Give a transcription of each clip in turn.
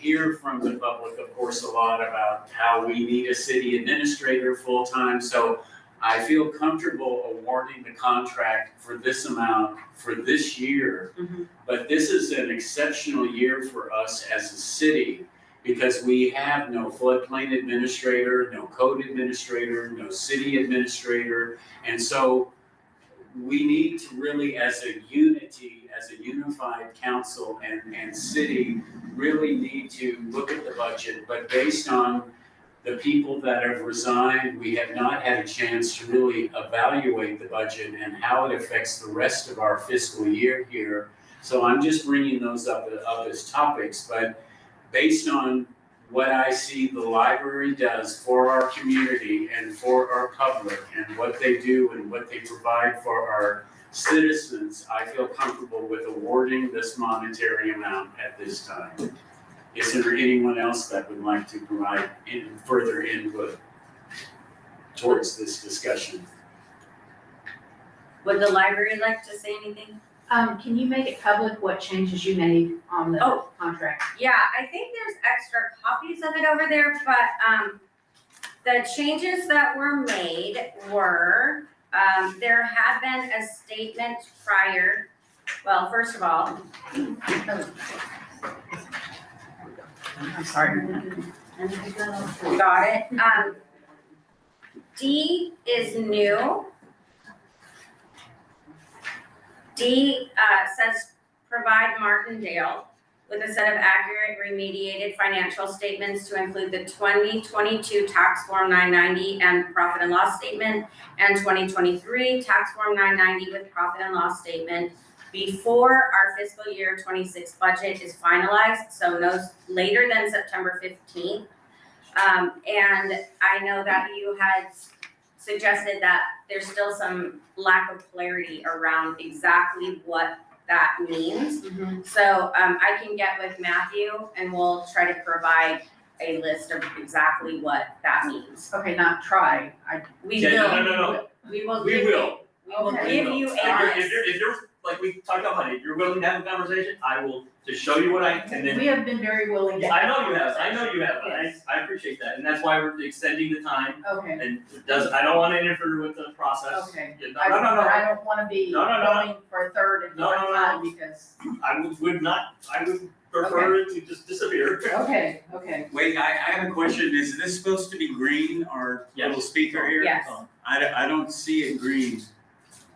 hear from the public, of course, a lot about how we need a city administrator full-time, so I feel comfortable awarding the contract for this amount for this year. Mhm. But this is an exceptional year for us as a city because we have no floodplain administrator, no code administrator, no city administrator. And so we need to really, as a unity, as a unified council and, and city, really need to look at the budget, but based on the people that have resigned, we have not had a chance to really evaluate the budget and how it affects the rest of our fiscal year here. So I'm just bringing those up, up as topics, but based on what I see the library does for our community and for our public and what they do and what they provide for our citizens, I feel comfortable with awarding this monetary amount at this time. Is there anyone else that would like to provide in further input towards this discussion? Would the library like to say anything? Um, can you make it public what changes you made on the Oh. contract? Yeah, I think there's extra copies of it over there, but, um, the changes that were made were, um, there had been a statement prior. Well, first of all, I'm sorry. got it, um, D is new. D, uh, says provide Martindale with a set of accurate remediated financial statements to include the twenty twenty-two tax form nine ninety and profit and loss statement and twenty twenty-three tax form nine ninety with profit and loss statement before our fiscal year twenty-six budget is finalized, so no later than September fifteenth. Um, and I know that you had suggested that there's still some lack of clarity around exactly what that means. So, um, I can get with Matthew and we'll try to provide a list of exactly what that means. Okay, not try, I. We Yeah, no, will, no, no, no, we will we give, will. we will Okay. give you a list. And if you're, if you're, if you're- like we talked about, honey, if you're willing to have a conversation, I will just show you what I, and then, We have been very willing. to- I know you have, I know you have, and I, I appreciate that, and that's why we're extending the time, Okay, and it does, I don't wanna interfere with the process. okay. Yeah, I- No, no, no, But no, I don't wanna be No, no, no. going for a third and No, fourth no, no. time because, I would, would not, I would prefer it to just disappear. okay, okay. Wait, I, I have a question. Is this supposed to be green, our little speaker here? Yes. I, don't- I don't see it green.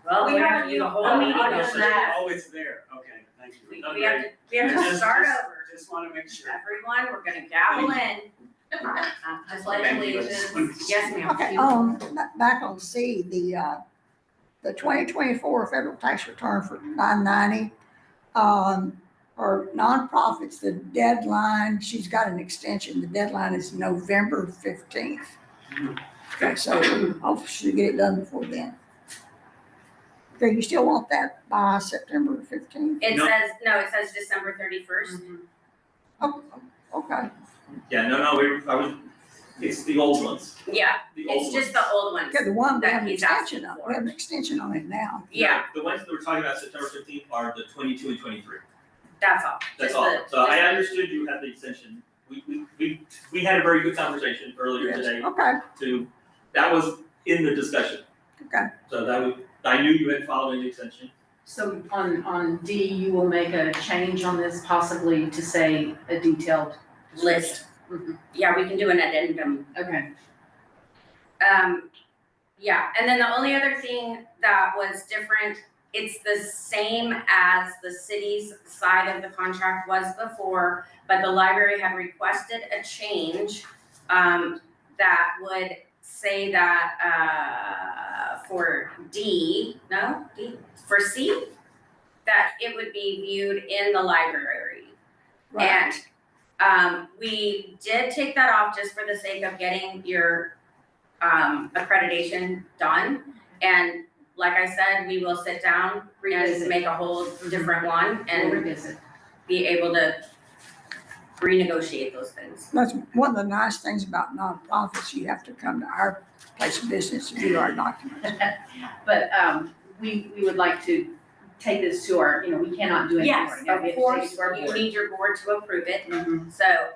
Well, We we haven't have to do the used whole all the meeting on others. that. Oh, it's there. Okay, thank you. We, Not we have to, we have to Just- start just- over. Just wanna make sure. Everyone, we're gonna gavel in. Uh, Just like Thank you. allegiance, yes ma'am. Okay, um, ba- back on C, the, uh, the twenty twenty-four federal tax return for nine ninety. Um, for nonprofits, the deadline, she's got an extension, the deadline is November fifteenth. Okay, so hopefully she'll get it done before then. Do you still want that by September fifteenth? It No. says, no, it says December thirty-first. Oh, okay, Yeah, no, no, we, I was, it's the old ones, Mm-hmm. Yeah, the old it's ones. just the old ones. okay, the one we That have an he's asking extension on, for. we have an extension on it now. Yeah, The ones that we're talking about September fifteenth are the twenty-two and twenty-three. that's all. That's Just all, the- so I just- understood you had the extension, we, we, we, we had a very good conversation earlier Yes, today Okay, to, that was in the discussion. Okay. So that was, I knew you had followed the extension, So on, on D, you will make a change on this possibly to say a detailed. List. Mhm. Mm-hmm. Yeah, we can do an addendum. Okay, Um, yeah, and then the only other thing that was different, it's the same as the city's side of the contract was before, but the library had requested a change, um, that would say that, uh, for D, no, D, for C, that it would be viewed in the library. right. And um we did take that off just for the sake of getting your um accreditation done. And like I said, we will sit down and Revisit. make a whole different one we'll and revisit. be able to renegotiate those things. That's one of the nice things about nonprofits, you have to come to our place of business to do our documents. But um, we, we would like to take this to our, you know, we cannot do anything right Yes, Mm-hmm. now, we of have to take it course, to our board. you need your board to approve it, Mhm. so,